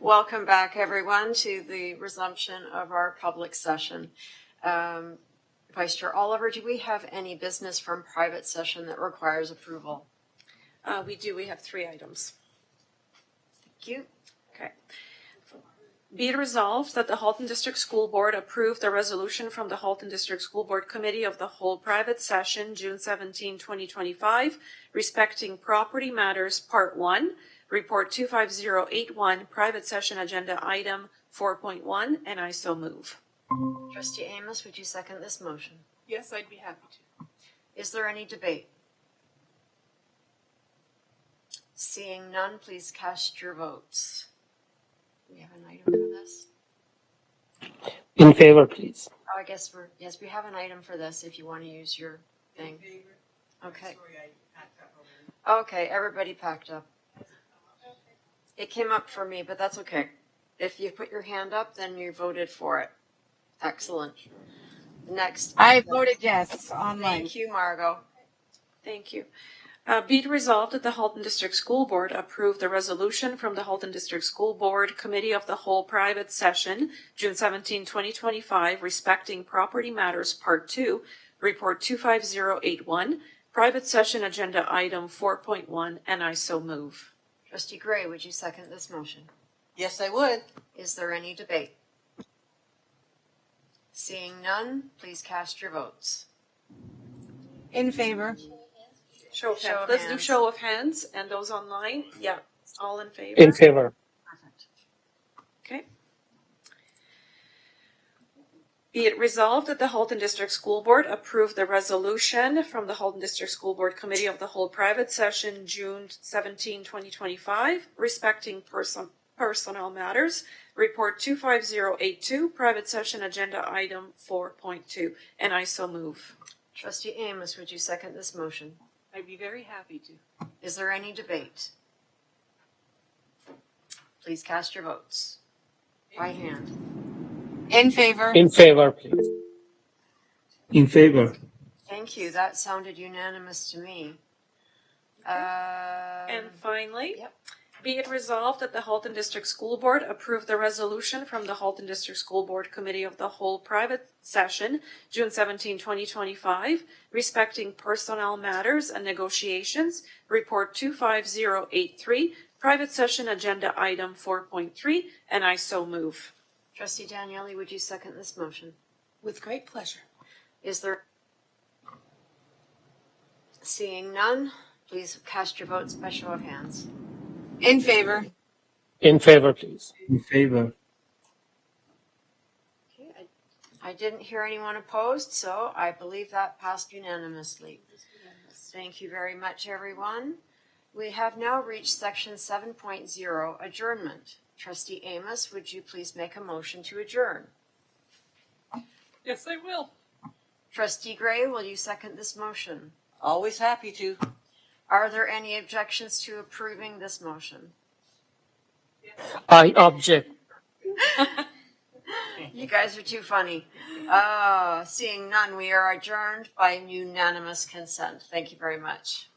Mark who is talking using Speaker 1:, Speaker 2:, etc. Speaker 1: Welcome back, everyone, to the resumption of our public session. Um, Vice Chair Oliver, do we have any business from private session that requires approval?
Speaker 2: Uh, we do, we have three items.
Speaker 1: Thank you.
Speaker 2: Okay. Be it resolved that the Halton District School Board approved a resolution from the Halton District School Board Committee of the whole private session, June 17, 2025, respecting property matters, Part 1, Report 25081, private session agenda item 4.1, and I so move.
Speaker 1: Trustee Amos, would you second this motion?
Speaker 3: Yes, I'd be happy to.
Speaker 1: Is there any debate? Seeing none, please cast your votes. We have an item for this?
Speaker 4: In favor, please.
Speaker 1: Oh, I guess we're, yes, we have an item for this if you want to use your thing. Okay. Okay, everybody packed up. It came up for me, but that's okay. If you put your hand up, then you voted for it. Excellent. Next.
Speaker 5: I voted yes online.
Speaker 1: Thank you, Margot.
Speaker 2: Thank you. Uh, Be it resolved that the Halton District School Board approved the resolution from the Halton District School Board Committee of the Whole Private Session, June 17, 2025, respecting Property Matters Part 2, Report 25081, Private Session Agenda Item 4.1, and I so move.
Speaker 1: Trustee Gray, would you second this motion?
Speaker 3: Yes, I would.
Speaker 1: Is there any debate? Seeing none, please cast your votes.
Speaker 5: In favor.
Speaker 2: Show of
Speaker 1: Show of
Speaker 2: Let's do
Speaker 1: hands.
Speaker 2: show of hands and those online. Yeah, all in favor?
Speaker 4: In favor.
Speaker 1: Perfect.
Speaker 2: Okay. Be it resolved that the Halton District School Board approved the resolution from the Halton District School Board Committee of the whole private session, June 17, 2025, respecting person, personnel matters, report 25082, private session agenda item 4.2, and I so move.
Speaker 1: Trustee Amos, would you second this motion?
Speaker 3: I'd be very happy to.
Speaker 1: Is there any debate? Please cast your votes by hand.
Speaker 5: In favor.
Speaker 4: In favor, please.
Speaker 6: In favor.
Speaker 1: Thank you. That sounded unanimous to me.
Speaker 2: And
Speaker 1: Um,
Speaker 2: finally,
Speaker 1: Yep.
Speaker 2: be it resolved that the Halton District School Board approve the resolution from the Halton District School Board Committee of the Whole Private Session, June 17, 2025, respecting personnel matters and negotiations, Report 25083, Private Session Agenda Item 4.3, and I so move.
Speaker 1: Trustee Daniele, would you second this motion?
Speaker 3: With great pleasure.
Speaker 1: Is there? Seeing none, please cast your votes by show of hands.
Speaker 5: In favor.
Speaker 4: In favor, please.
Speaker 6: In favor.
Speaker 1: Okay, I I didn't hear anyone opposed, so I believe that passed unanimously. Thank you very much, everyone. We have now reached section seven point zero, adjournment. Trustee Amos, would you please make a motion to adjourn?
Speaker 3: Yes, I will.
Speaker 1: Trustee Gray, will you second this motion?
Speaker 3: Always happy to.
Speaker 1: Are there any objections to approving this motion?
Speaker 4: I object.
Speaker 1: You guys are too funny. Uh, seeing none, we are adjourned by unanimous consent. Thank you very much.